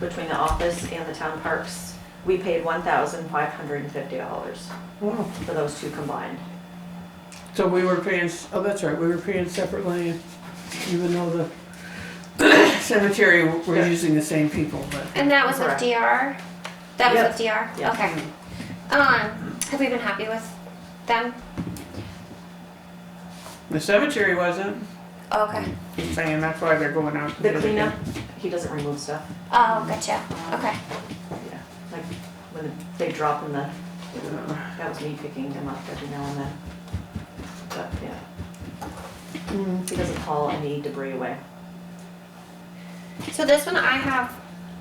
between the office and the town parks, we paid one thousand five hundred and fifty dollars Wow. for those two combined. So we were paying, oh, that's right, we were paying separately, even though the cemetery, Yeah. we're using the same people, but. And that was with Correct. DR? That was Yep. with DR? Yep. Okay. Um, have we been happy with them? The cemetery wasn't, Oh, Okay. Mm-hmm. I'm saying that's why they're going out. to The do it cleanup, again. he doesn't remove stuff, Oh, gotcha. Okay. yeah, like when they drop in the, Uh, that was me picking them up every now and then. But, yeah, mm, he doesn't haul any debris away. So this one I have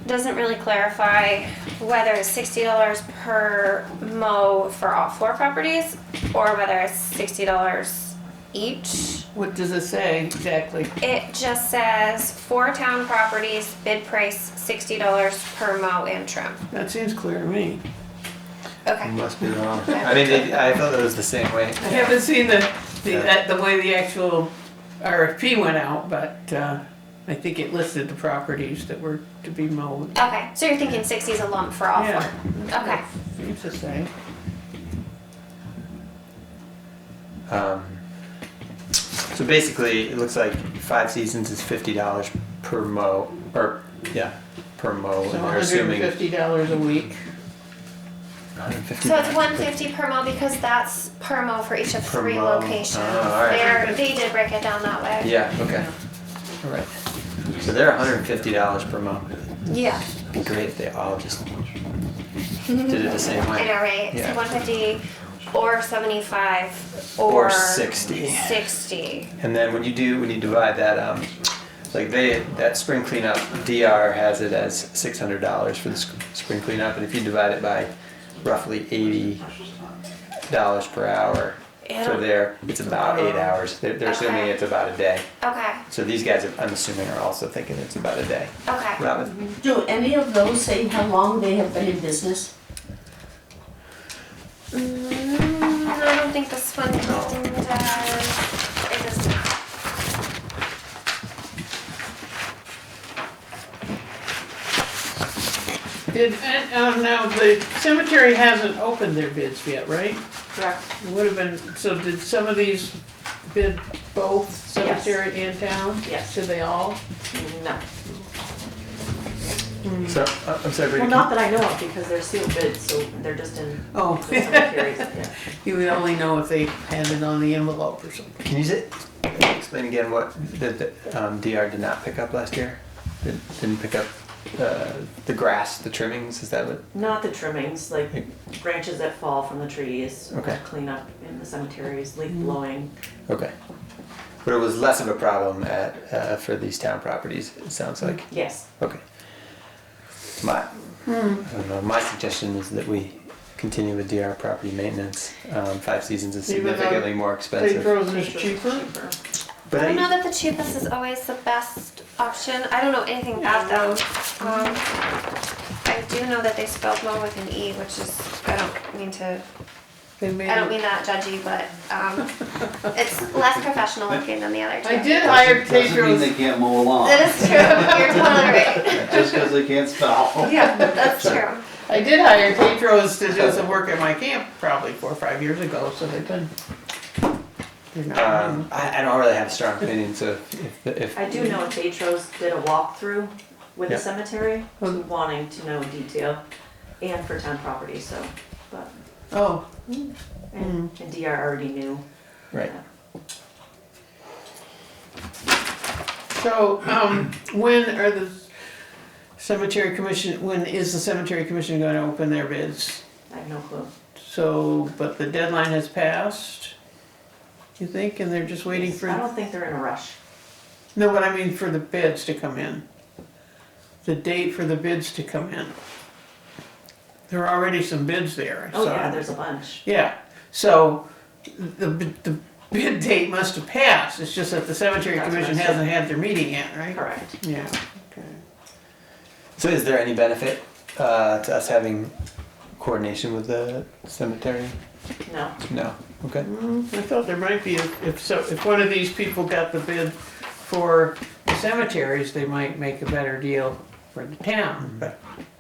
doesn't really clarify whether it's sixty dollars per mow for all four properties or whether it's sixty dollars each. What does it say exactly? It just says four town properties, bid price sixty dollars per mow and trim. That seems clear to me. Okay. Mm-hmm. Must be wrong. I mean, it, I thought it was the same way. I haven't seen the, the, Yeah. that- the way the actual RFP went out, but, uh, I think it listed the properties that were to be mowed. Okay. So you're thinking sixty is a lump for all Yeah. four? Okay. Seems the same. Um, so basically, it looks like five seasons is fifty dollars per mo, or yeah, per mo. So and they're hundred and assuming fifty dollars a week. 150 So it's one fifty per mile because that's per mile for each of Per three mile. locations. Oh, all right. They're, they did break it down that way. Yeah. Okay. All right. So they're one hundred and fifty dollars per mo. Yeah. It'd be great if they all just did it the same I way. know, right? Yeah. So one fifty or seventy-five or. Or 60. 60. And then when you do, when you divide that, um, like they, that spring cleanup, DR has it as six hundred dollars for the sc- spring cleanup, and if you divide it by roughly eighty dollars per hour Yeah. for there, it's about eight hours. They're, they're assuming Okay. it's about a day. Okay, So these guys, I'm assuming, are also thinking it's about a day. Mm-hmm. okay. Robin, Do any of those say how long they have been in business? Mm, I don't think this one does, it does not. Did, and, um, now, the cemetery hasn't opened their bids yet, right? Correct. It Would have been, so did some of these bid both cemetery and town? Yes. Did they all? No, so uh, I'm sorry, well, Brady. not that I know of, because they're sealed bids, so they're just in the Oh, cemeteries, yeah. you would only know if they had it on the envelope or something. Can you sit, explain again what the, the um, DR did not pick up last year? It didn't pick up uh, the grass, the trimmings. Is that what? Not the trimmings, like Like- branches that fall from the trees, Okay. cleanup in the cemeteries, Mm. leaf blowing. Okay. But it was less of a problem at, uh, for these town properties, it sounds like. Yes, Okay. My, I don't know, my suggestion is that we continue with DR property maintenance. Um, five seasons is Even though significantly more They expensive. frozen is cheaper? cheaper. But I don't know I, that the cheapest is always the best option. I don't know anything about them. Um, I do know that they spelled mow with an E, which is, I don't mean to, They made I don't it. mean that judgy, but, um, it's less professional looking than the other two. I did hire Doesn't mean they Tedros, can't mow along, That is true. You're totally right. just because they can't spell. Yeah, that's true. I did hire Tedros to do some work at my camp probably four or five years ago, so they've been. they're Uh, not- um, I, I don't really have a strong opinion, so if, if, if I do know Tetros did a walkthrough with the Yeah. cemetery, Hmm. wanting to know detail and for town property, so, but, Oh, and Mm-hmm. and DR already knew. Right. So, um, when are the cemetery commission, when is the cemetery commission gonna open their bids? I have no clue. So, but the deadline has passed, you think, and they're just waiting I for, don't think they're in a rush. no, what I mean for the bids to come in. The date for the bids to come in. There are already some bids there, I Oh, saw. yeah, there's a bunch. Yeah, so the, the bid date must have passed, it's just that the cemetery That's what I commission said. hasn't had their meeting yet, right? Correct. Yeah, okay. So is there any benefit uh, to us having coordination with the cemetery? No, No. Okay. Mm, I thought there might be, if if so, if one of these people got the bid for the cemeteries, they might make a better deal for the town, but